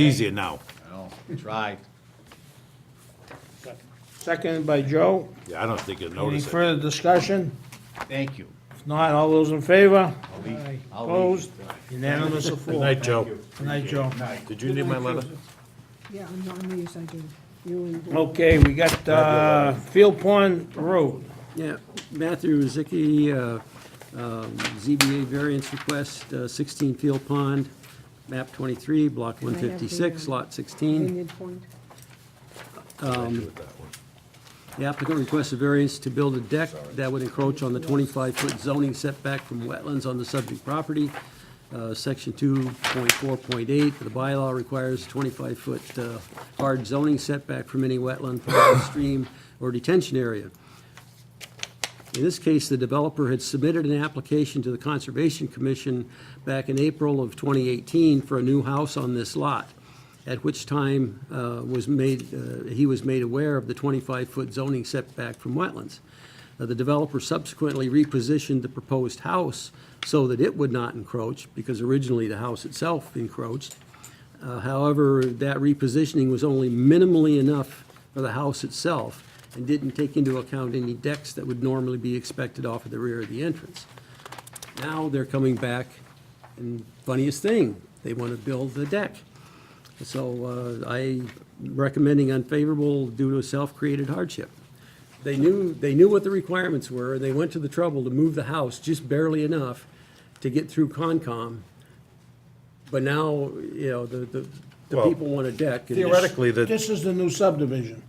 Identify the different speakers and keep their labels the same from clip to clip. Speaker 1: Easier now.
Speaker 2: Well, tried.
Speaker 3: Seconded by Joe.
Speaker 1: Yeah, I don't think you'll
Speaker 3: Any
Speaker 1: notice it.
Speaker 3: further discussion?
Speaker 2: Thank you.
Speaker 3: If not, all those in favor?
Speaker 2: I'll leave- I'll leave.
Speaker 3: Opposed? Unanimous
Speaker 1: Good
Speaker 3: of four.
Speaker 1: night, Joe.
Speaker 3: Good night, Joe.
Speaker 1: Did you need my letter?
Speaker 4: Yeah, on on these I do. You and
Speaker 3: Okay, we got, uh, Field Pond Road.
Speaker 5: Yeah, Matthew Rozicki, uh, um, ZBA variance request, uh, 16 Field Pond, map 23, block
Speaker 4: I have the,
Speaker 5: 156,
Speaker 4: um,
Speaker 5: lot 16.
Speaker 4: Vineyard Point.
Speaker 5: The applicant requests a variance to build a deck that would encroach on the 25-foot zoning setback from wetlands on the subject property. Uh, Section 2.4.8 of the bylaw requires 25-foot uh, hard zoning setback from any wetland, pond, stream, or detention area. In this case, the developer had submitted an application to the Conservation Commission back in April of 2018 for a new house on this lot, at which time uh, was made, uh, he was made aware of the 25-foot zoning setback from wetlands. Uh, The developer subsequently repositioned the proposed house so that it would not encroach, because originally the house itself encroached. Uh, However, that repositioning was only minimally enough for the house itself and didn't take into account any decks that would normally be expected off of the rear of the entrance. Now they're coming back, and funniest thing, they want to build the deck. So uh, I recommending unfavorable due to a self-created hardship. They knew, they knew what the requirements were, and they went to the trouble to move the house just barely enough to get through Concom. But now, you know, the, the, the
Speaker 1: Well,
Speaker 5: people want a deck. and-
Speaker 1: Theoretically, that's
Speaker 3: This is the new subdivision.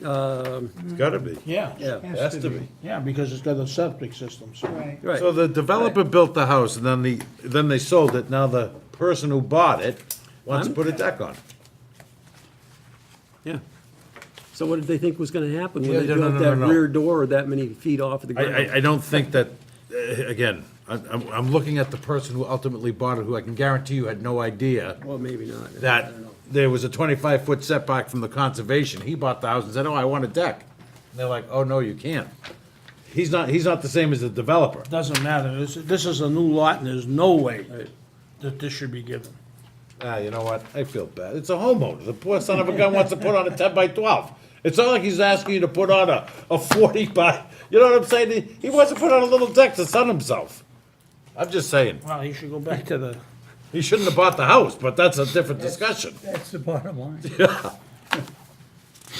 Speaker 1: gotta be.
Speaker 3: Yeah.
Speaker 5: Yeah,
Speaker 1: Has to be.
Speaker 3: Yeah, because it's got a septic system, so.
Speaker 4: Right.
Speaker 5: right.
Speaker 1: So the developer built the house and then the, then they sold it. Now the person who bought it wants to
Speaker 5: I'm-
Speaker 1: put a deck on.
Speaker 5: Yeah. So what did they think was gonna happen
Speaker 1: Yeah,
Speaker 5: when
Speaker 1: no,
Speaker 5: they
Speaker 1: no,
Speaker 5: built
Speaker 1: no, no,
Speaker 5: that
Speaker 1: no.
Speaker 5: rear door that many feet off of the
Speaker 1: I,
Speaker 5: ground?
Speaker 1: I, I don't think that, uh, again, I- I'm, I'm looking at the person who ultimately bought it, who I can guarantee you had no idea
Speaker 5: Well, maybe not. I
Speaker 1: that
Speaker 5: don't know.
Speaker 1: there was a twenty-five foot setback from the conservation. He bought the house and said, oh, I want a deck. And they're like, oh, no, you can't. He's not, he's not the same as the developer.
Speaker 3: Doesn't matter. This, this is a new lot and there's no way that this should be given.
Speaker 1: Ah, you know what? I feel bad. It's a homeowner. The poor son of a gun wants to put on a ten by twelve. It's not like he's asking you to put on a, a forty by. You know what I'm saying? He, he wants to put on a little deck to sun himself. I'm just saying
Speaker 3: Well, he should go back to the,
Speaker 1: he shouldn't have bought the house, but that's a different discussion.
Speaker 6: That's the bottom line.
Speaker 3: he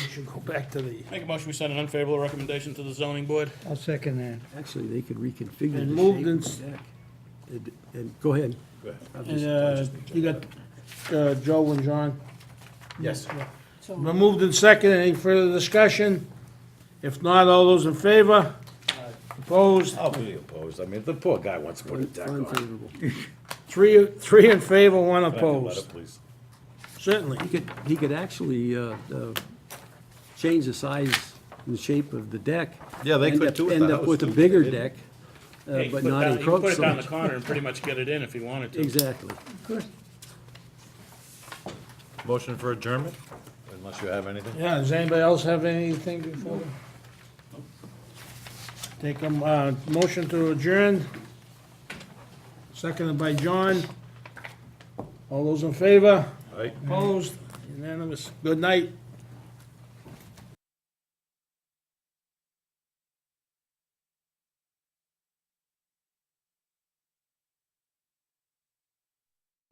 Speaker 3: should go back to the,
Speaker 7: Make a motion, we send an unfavorable recommendation to the zoning board.
Speaker 6: I'll second that.
Speaker 5: Actually, they could reconfigure the
Speaker 3: And
Speaker 5: shape
Speaker 3: moved
Speaker 5: of the deck. And- And, go ahead.
Speaker 3: and, uh, you got, uh, Joe and John.
Speaker 1: Yes.
Speaker 3: Been moved in second, any further discussion? If not, all those in favor? Opposed?
Speaker 1: I'll be opposed. I mean, the poor guy wants to put a deck on.
Speaker 5: Unfavorable.
Speaker 3: Three, three in favor, one
Speaker 1: Back and let
Speaker 3: opposed.
Speaker 1: it, please.
Speaker 3: Certainly.
Speaker 5: He could, he could actually, uh, uh, change the size and shape of the deck.
Speaker 1: Yeah, they
Speaker 5: end
Speaker 1: could
Speaker 5: up-
Speaker 1: do with
Speaker 5: End
Speaker 1: the
Speaker 5: up
Speaker 1: house,
Speaker 5: with a
Speaker 1: too, but
Speaker 5: bigger
Speaker 1: they didn't.
Speaker 5: deck, uh,
Speaker 7: Hey,
Speaker 5: but
Speaker 7: put it
Speaker 5: not
Speaker 7: down- you can
Speaker 5: encroach so
Speaker 7: Put it down the
Speaker 5: much.
Speaker 7: corner and pretty much get it in if you wanted to.
Speaker 5: Exactly.
Speaker 1: Motion for adjournment? Unless you have anything.
Speaker 3: Yeah, does anybody else have anything before? Take a, uh, motion to adjourn. Seconded by John. All those in favor?
Speaker 1: Aye.
Speaker 3: Opposed? Unanimous. Good night.